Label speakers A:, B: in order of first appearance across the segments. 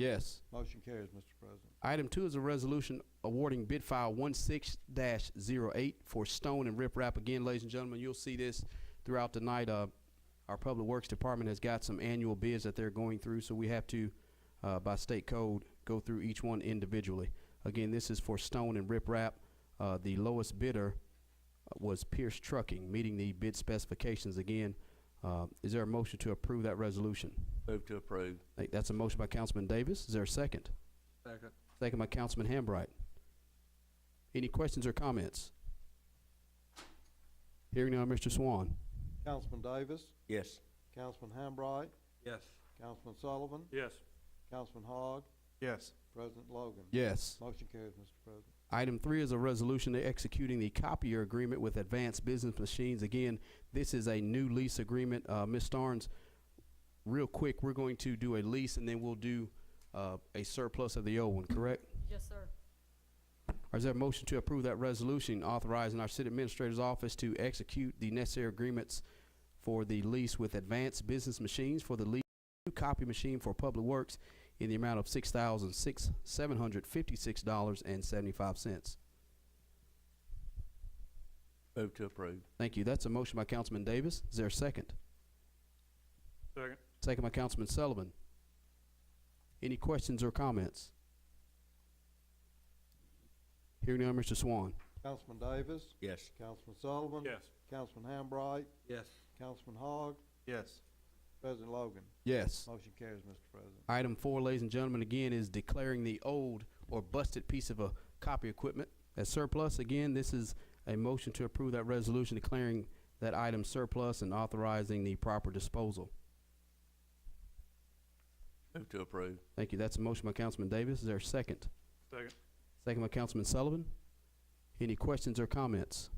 A: Yes.
B: Motion carries, Mr. President.
A: Item two is a resolution awarding bid file one six dash zero eight for stone and riprap. Again, ladies and gentlemen, you'll see this throughout the night. Uh, our Public Works Department has got some annual bids that they're going through, so we have to, uh, by state code, go through each one individually. Again, this is for stone and riprap. Uh, the lowest bidder uh, was Pierce Trucking, meeting the bid specifications again. Uh, is there a motion to approve that resolution?
C: Move to approve.
A: Thank- That's a motion by Councilman Davis. Is there a second?
D: Second.
A: Second by Councilman Hambright. Any questions or comments? Hearing now, Mr. Swan.
B: Councilman Davis,
C: Yes.
B: Councilman Hambright,
D: Yes.
B: Councilman Sullivan,
D: Yes.
B: Councilman Hogg,
D: Yes.
B: President Logan.
A: Yes.
B: Motion carries, Mr. President.
A: Item three is a resolution executing the copier agreement with Advanced Business Machines. Again, this is a new lease agreement. Uh, Ms. Starnes, real quick, we're going to do a lease and then we'll do, uh, a surplus of the old one, correct?
E: Yes, sir.
A: Is there a motion to approve that resolution authorizing our city administrator's office to execute the necessary agreements for the lease with Advanced Business Machines for the lease of a new copy machine for Public Works in the amount of six thousand six, seven hundred fifty-six dollars and seventy-five cents?
C: Move to approve.
A: Thank you. That's a motion by Councilman Davis. Is there a second?
D: Second.
A: Second by Councilman Sullivan. Any questions or comments? Hearing none, Mr. Swan.
B: Councilman Davis,
C: Yes.
B: Councilman Sullivan.
D: Yes.
B: Councilman Hambright,
D: Yes.
B: Councilman Hogg,
D: Yes.
B: President Logan.
A: Yes.
B: Motion carries, Mr. President.
A: Item four, ladies and gentlemen, again, is declaring the old or busted piece of a copy equipment as surplus. Again, this is a motion to approve that resolution declaring that item surplus and authorizing the proper disposal.
C: Move to approve.
A: Thank you. That's a motion by Councilman Davis. Is there a second?
D: Second.
A: Second by Councilman Sullivan. Any questions or comments?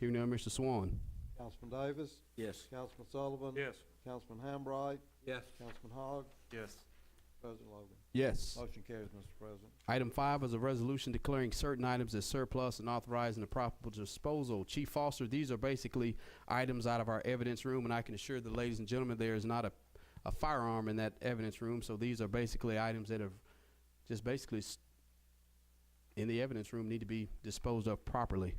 A: Hearing none, Mr. Swan.
B: Councilman Davis,
C: Yes.
B: Councilman Sullivan.
D: Yes.
B: Councilman Hambright,
D: Yes.
B: Councilman Hogg,
D: Yes.
B: President Logan.
A: Yes.
B: Motion carries, Mr. President.
A: Item five is a resolution declaring certain items as surplus and authorizing the proper disposal. Chief Foster, these are basically items out of our evidence room, and I can assure the ladies and gentlemen, there is not a, a firearm in that evidence room, so these are basically items that have just basically s- in the evidence room need to be disposed of properly.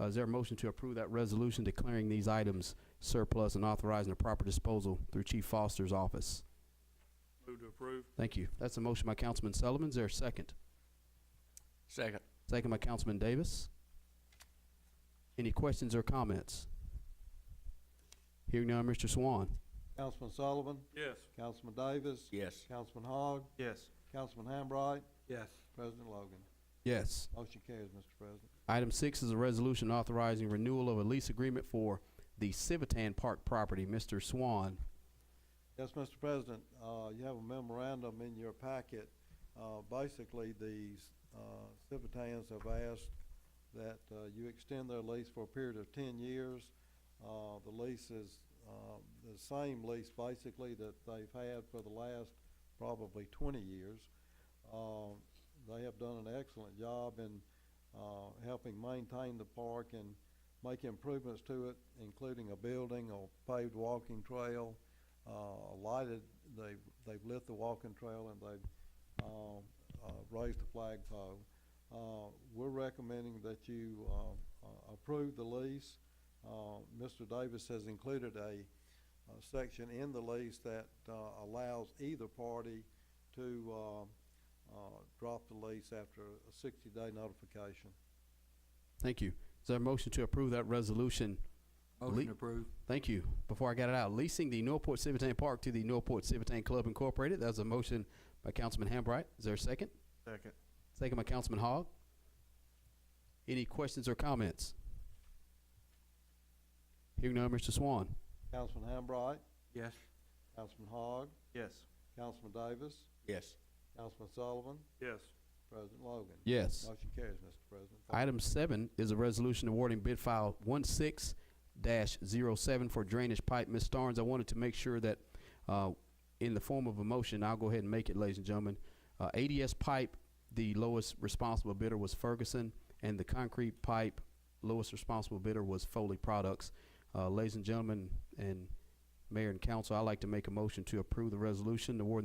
A: Uh, is there a motion to approve that resolution declaring these items surplus and authorizing the proper disposal through Chief Foster's office?
D: Move to approve.
A: Thank you. That's a motion by Councilman Sullivan. Is there a second?
C: Second.
A: Second by Councilman Davis. Any questions or comments? Hearing none, Mr. Swan.
B: Councilman Sullivan,
D: Yes.
B: Councilman Davis,
C: Yes.
B: Councilman Hogg,
D: Yes.
B: Councilman Hambright,
D: Yes.
B: President Logan.
A: Yes.
B: Motion carries, Mr. President.
A: Item six is a resolution authorizing renewal of a lease agreement for the Civitan Park property. Mr. Swan.
B: Yes, Mr. President, uh, you have a memorandum in your packet. Uh, basically, the, uh, Civitans have asked that, uh, you extend their lease for a period of ten years. Uh, the lease is, uh, the same lease basically that they've had for the last probably twenty years. Uh, they have done an excellent job in, uh, helping maintain the park and make improvements to it, including a building, a paved walking trail, uh, lighted, they've, they've lit the walking trail and they've, um, uh, raised the flagpole. Uh, we're recommending that you, uh, uh, approve the lease. Uh, Mr. Davis has included a, uh section in the lease that, uh, allows either party to, uh, uh, drop the lease after a sixty-day notification.
A: Thank you. Is there a motion to approve that resolution? Motion
D: approved.
A: Thank you. Before I got it out, leasing the Northport Civitan Park to the Northport Civitan Club Incorporated. That was a motion by Councilman Hambright. Is there a second?
D: Second.
A: Second by Councilman Hogg. Any questions or comments? Hearing none, Mr. Swan.
B: Councilman Hambright,
D: Yes.
B: Councilman Hogg,
D: Yes.
B: Councilman Davis,
C: Yes.
B: Councilman Sullivan,
D: Yes.
B: President Logan.
A: Yes.
B: Motion carries, Mr. President.
A: Item seven is a resolution awarding bid file one six dash zero seven for drainage pipe. Ms. Starnes, I wanted to make sure that, uh, in the form of a motion, I'll go ahead and make it, ladies and gentlemen. Uh, ADS pipe, the lowest responsible bidder was Ferguson, and the concrete pipe, lowest responsible bidder was Foley Products. Uh, ladies and gentlemen, and Mayor and council, I'd like to make a motion to approve the resolution awarding